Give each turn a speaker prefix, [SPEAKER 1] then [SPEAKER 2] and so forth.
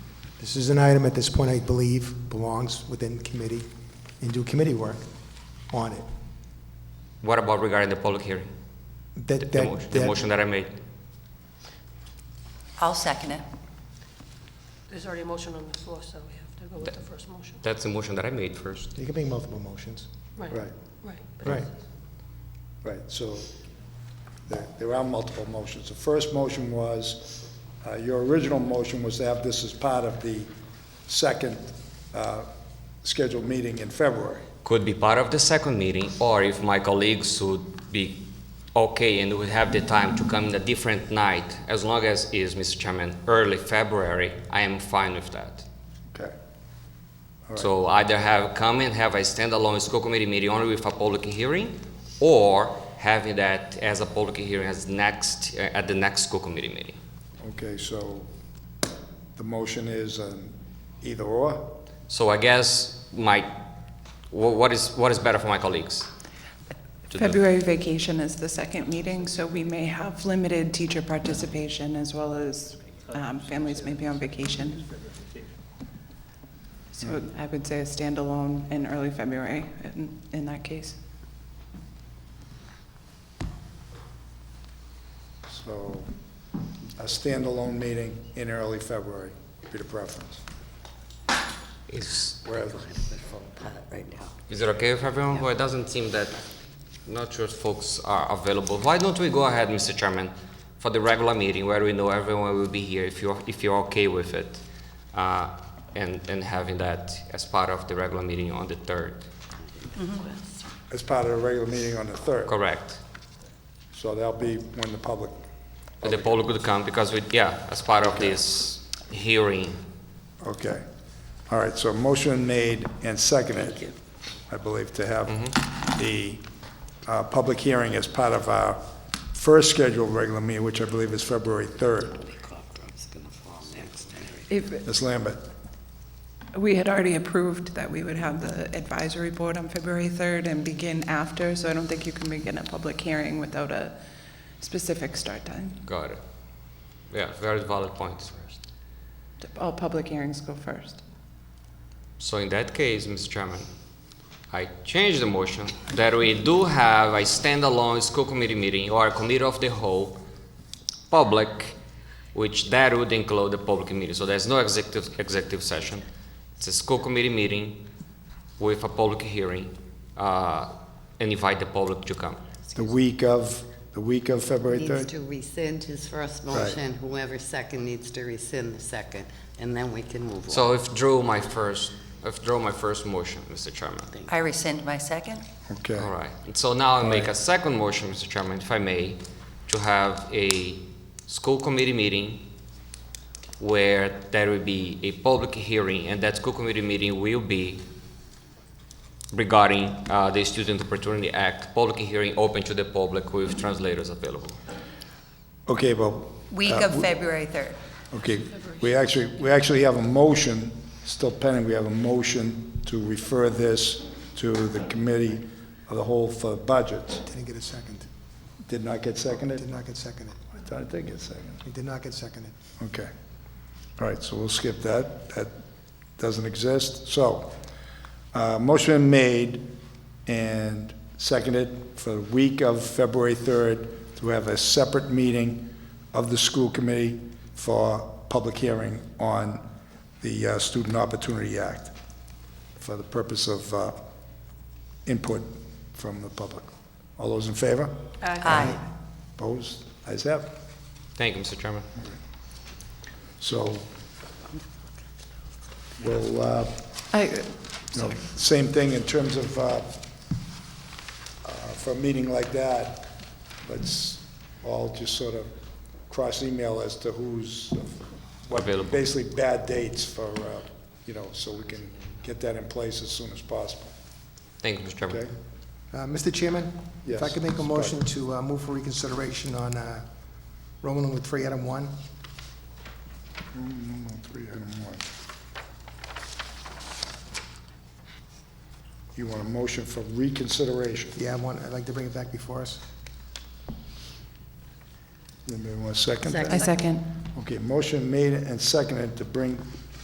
[SPEAKER 1] This is an item at this point, I believe, belongs within committee and do committee work on it.
[SPEAKER 2] What about regarding the public hearing? The-
[SPEAKER 1] That,
[SPEAKER 2] The mo-
[SPEAKER 1] that,
[SPEAKER 2] the
[SPEAKER 1] that,
[SPEAKER 2] motion that I made.
[SPEAKER 3] I'll second it.
[SPEAKER 4] There's already a motion on the floor, so we have to go with the first motion.
[SPEAKER 2] That's the motion that I made first.
[SPEAKER 1] you can make multiple motions.
[SPEAKER 4] Right.
[SPEAKER 1] Right,
[SPEAKER 4] Right.
[SPEAKER 1] right.
[SPEAKER 5] Right, so there there are multiple motions. The first motion was, uh, your original motion was to have this as part of the second uh, scheduled meeting in February.
[SPEAKER 2] Could be part of the second meeting, or if my colleagues would be okay and would have the time to come in a different night, as long as is, Mr. Chairman, early February, I am fine with that.
[SPEAKER 5] Okay.
[SPEAKER 2] So either have, come and have a standalone school committee meeting only with a public hearing, or having that as a public hearing as next, uh, at the next school committee meeting.
[SPEAKER 5] Okay, so the motion is an either or?
[SPEAKER 2] So I guess my, wha- what is, what is better for my colleagues? to do?
[SPEAKER 6] February vacation is the second meeting, so we may have limited teacher participation as well as um, families may be on vacation. So I would say a standalone in early February in- in that case.
[SPEAKER 5] So a standalone meeting in early February would be the preference.
[SPEAKER 2] Is,
[SPEAKER 5] Whereas-
[SPEAKER 2] Is it okay with everyone? Well, it doesn't seem that not sure if folks are available. Why don't we go ahead, Mr. Chairman, for the regular meeting where we know everyone will be here if you're, if you're okay with it? Uh, and, and having that as part of the regular meeting on the 3rd.
[SPEAKER 5] As part of the regular meeting on the 3rd.
[SPEAKER 2] Correct.
[SPEAKER 5] So that'll be when the public,
[SPEAKER 2] The poll could come because we, yeah, as part of this hearing.
[SPEAKER 5] okay. All right, so motion made and seconded, I believe, to have the uh, public hearing as part of our first scheduled regular meeting, which I believe is February 3rd.
[SPEAKER 6] If,
[SPEAKER 5] Ms. Lambert?
[SPEAKER 6] we had already approved that we would have the advisory board on February 3rd and begin after, so I don't think you can begin a public hearing without a specific start time.
[SPEAKER 2] Got it. Yeah, very valid point.
[SPEAKER 6] All public hearings go first.
[SPEAKER 2] So in that case, Mr. Chairman, I change the motion that we do have a standalone school committee meeting or a committee of the whole public, which that would include the public meeting. So there's no executive, executive session. It's a school committee meeting with a public hearing, uh, and invite the public to come.
[SPEAKER 5] The week of, the week of February
[SPEAKER 7] Needs
[SPEAKER 5] 3rd?
[SPEAKER 7] to rescind his first motion, whoever second needs to rescind the second, and then we can move on.
[SPEAKER 2] So I withdrew my first, I withdrew my first motion, Mr. Chairman.
[SPEAKER 3] I rescind my second.
[SPEAKER 5] Okay.
[SPEAKER 2] All right, and so now I make a second motion, Mr. Chairman, if I may, to have a school committee meeting where there will be a public hearing, and that school committee meeting will be regarding uh, the Student Opportunity Act, public hearing open to the public with translators available.
[SPEAKER 5] Okay, well,
[SPEAKER 3] Week
[SPEAKER 5] Uh,
[SPEAKER 3] of
[SPEAKER 5] w-
[SPEAKER 3] February 3rd.
[SPEAKER 5] Okay, we actually, we actually have a motion, still pending, we have a motion to refer this to the committee of the whole for budgets.
[SPEAKER 1] Didn't get a second.
[SPEAKER 5] Did not get seconded?
[SPEAKER 1] Did not get seconded.
[SPEAKER 5] I thought it did get seconded.
[SPEAKER 1] It did not get seconded.
[SPEAKER 5] Okay. All right, so we'll skip that. That doesn't exist. So, uh, motion made and seconded for the week of February 3rd to have a separate meeting of the school committee for public hearing on the uh, Student Opportunity Act for the purpose of uh, input from the public. All those in favor?
[SPEAKER 3] Aye.
[SPEAKER 5] Opposed? Ayes have it.
[SPEAKER 2] Thank you, Mr. Chairman.
[SPEAKER 5] So, we'll, uh,
[SPEAKER 6] I,
[SPEAKER 5] you know, same thing in terms of, uh, uh, for a meeting like that, let's all just sort of cross-email as to who's, what,
[SPEAKER 2] Available.
[SPEAKER 5] basically bad dates for, uh, you know, so we can get that in place as soon as possible,
[SPEAKER 2] Thank you, Mr.
[SPEAKER 5] okay?
[SPEAKER 2] Chairman.
[SPEAKER 1] Uh, Mr. Chairman? If I
[SPEAKER 5] Yes,
[SPEAKER 1] could make a
[SPEAKER 5] Mr.
[SPEAKER 1] motion to uh, move for reconsideration on uh, Roman numeral three, item one,
[SPEAKER 5] Three, item one. You want a motion for reconsideration?
[SPEAKER 1] yeah, I want, I'd like to bring it back before us.
[SPEAKER 5] Anybody want to second that?
[SPEAKER 7] Second.
[SPEAKER 6] I second.
[SPEAKER 5] Okay, motion made and seconded to bring